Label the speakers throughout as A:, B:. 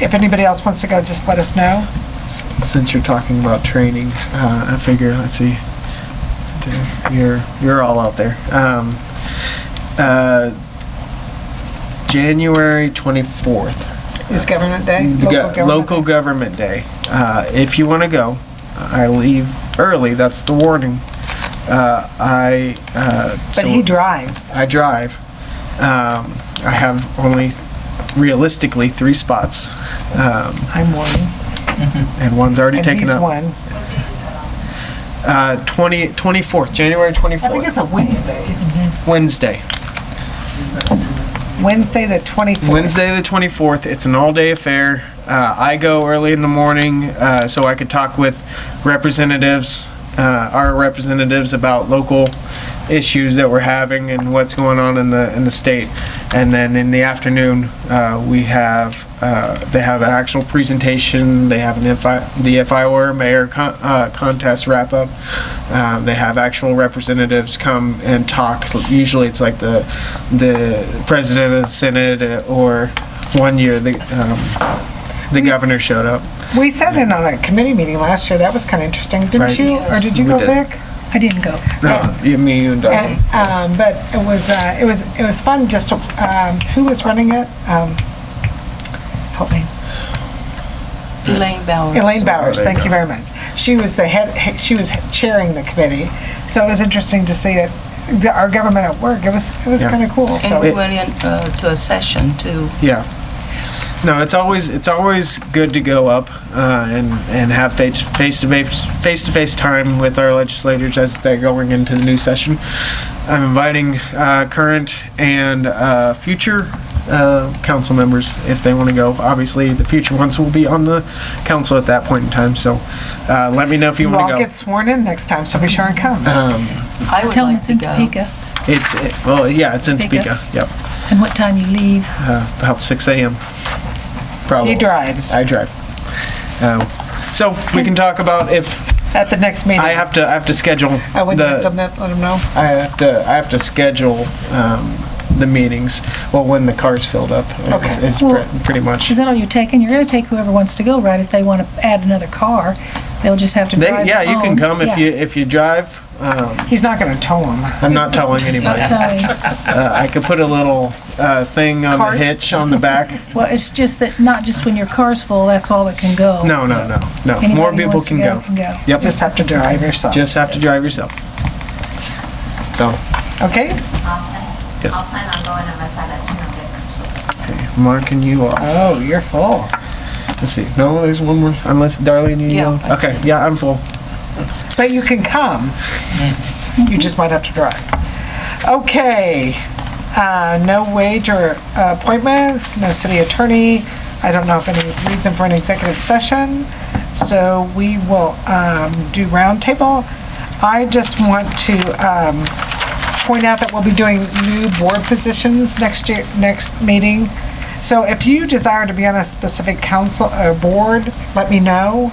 A: if anybody else wants to go, just let us know.
B: Since you're talking about training, uh, I figure let's see, do- you're you're all out there. Um, uh, January twenty fourth,
A: Is Government Day?
B: local,
A: government
B: local
A: day?
B: government day. Uh, if you want to go, I leave early. That's the warning. Uh, I uh,
A: But he drives.
B: I drive. Um, I have only realistically three spots, um,
A: I'm one.
B: and one's already
A: And
B: taken
A: he's
B: up.
A: one.
B: Uh, 20, 24th, January
A: I think it's
B: 24th,
A: a Wednesday.
B: Wednesday.
A: Wednesday, the 24th.
B: Wednesday the 24th. It's an all day affair. Uh, I go early in the morning uh, so I could talk with representatives, uh, our representatives about local issues that we're having and what's going on in the in the state. And then in the afternoon, uh, we have uh, they have an actual presentation. They have an FI, the if I were mayor con- uh, contest wrap up. Um, they have actual representatives come and talk. Usually, it's like the the president of the senate uh, or one year the um, the governor showed up.
A: We sat in on a committee meeting last year. That was kind of interesting, didn't
B: Right.
A: you? Or did you
B: We
A: go,
B: did.
A: Vic?
C: I didn't go.
B: Uh, you- me you and Doug.
A: And, um, but it was, uh, it was, it was fun just to, um, who was running it? Um, help me.
D: Elaine Bowers.
A: Elaine Bowers,
B: Elaine
A: thank you very much. She was the head, she was chairing the committee. So it was interesting to see it, the- our government at work. It was, it was
B: Yeah.
A: kind of cool.
D: And we
A: So
D: went in uh, to a session too.
B: Yeah. No, it's always it's always good to go up uh, and and have face face to face face to face time with our legislators as they're going into the new session. I'm inviting uh, current and uh, future uh, council members if they want to go. Obviously, the future ones will be on the council at that point in time. So, uh, let me know if you,
A: you
B: want
A: all
B: to go. Uh-huh.
A: get sworn in next time, so be sure and come.
D: I would
C: Tell them
D: like
C: it's
D: to
C: in
D: go.
C: Topeka
B: it's it, well, yeah, it's in
C: Topeka.
B: Topeka. Yep,
C: and what time you leave.
B: uh, about 6 a.m. Probably.
A: He drives
B: I drive. Um, so we can talk about if
A: at the next meeting.
B: I have to. I have to schedule
A: I wouldn't have done
B: the.
A: that, let him know.
B: I have to. I have to schedule um, the meetings. Well, when the car's filled up, it's,
A: Okay.
B: it's
C: Well-
B: pre- pretty much.
C: Is that all you're taking? You're gonna take whoever wants to go, right? If they wanna add another car, they'll just have to
B: They,
C: drive
B: yeah, you can
C: home.
B: come if
C: Yeah.
B: you if you drive. Um,
A: He's not gonna tow him.
B: I'm not telling anybody.
C: Don't
B: Uh,
C: tell me.
B: I could put a little uh, thing on
A: Cart?
B: the hitch on the back.
C: Well, it's just that not just when your car's full, that's all that can go.
B: No, no, no, no.
C: Anybody
B: More
C: who
B: people
C: wants to
B: can go.
C: Can go.
B: Yep.
A: Just have to drive yourself.
B: Just have to drive yourself. So
A: Okay?
B: yes,
E: I'll plan on going unless I let you know different.
B: Mark and you are.
A: Oh, you're full.
B: Let's see. No, there's one more. Unless Darlene, you.
D: Yeah,
B: know.
D: I
B: Okay. Yeah, I'm full.
A: But you can come. You just might have to drive. Okay. Uh, No wage or uh, appointments, no city attorney. I don't know if any reason for an executive session. So we will um, do roundtable. I just want to um, point out that we'll be doing new board positions next year, next meeting. So if you desire to be on a specific council or board, let me know,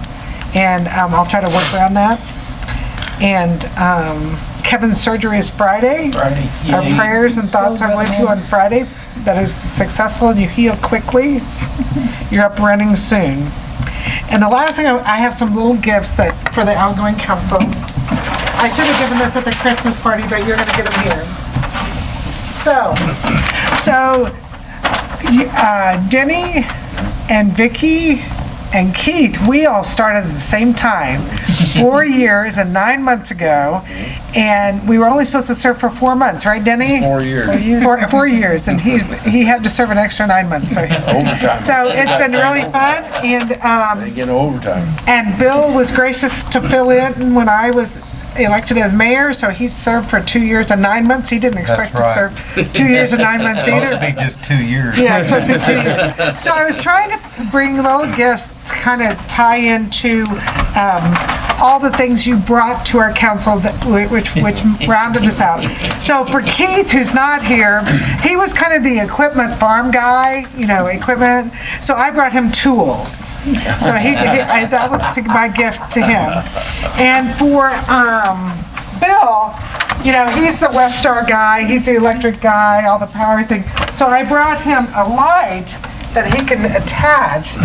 A: and um, I'll try to work around that. And um, Kevin's surgery is Friday.
F: Friday.
A: Our
F: Yeah.
A: prayers and thoughts are with you on Friday, that is successful and you heal quickly. You're up running soon. And the last thing, I I have some little gifts that, for the outgoing council. I should have given this at the Christmas party, but you're gonna get them here. So, so you- uh, Denny and Vicky and Keith, we all started at the same time, four years and nine months ago, and we were only supposed to serve for four months, right, Denny?
F: Four years.
A: Four, four years, and he, he had to serve an extra nine months, so,
F: Overtime.
A: so it's been really fun, and, um,
F: They get overtime.
A: and Bill was gracious to fill in when I was elected as mayor, so he served for two years and nine months, he didn't expect to
G: That's right.
A: serve two years and nine months either.
G: It'd be just two years.
A: Yeah, it's supposed to be two years. So I was trying to bring little gifts to kind of tie into um, all the things you brought to our council, that which, which rounded us out. So for Keith, who's not here, he was kind of the equipment farm guy, you know, equipment. So I brought him tools. So he, he- I- that was to- my gift to him. And for um, Bill, you know, he's the Westar guy, he's the electric guy, all the power thing. So I brought him a light that he can attach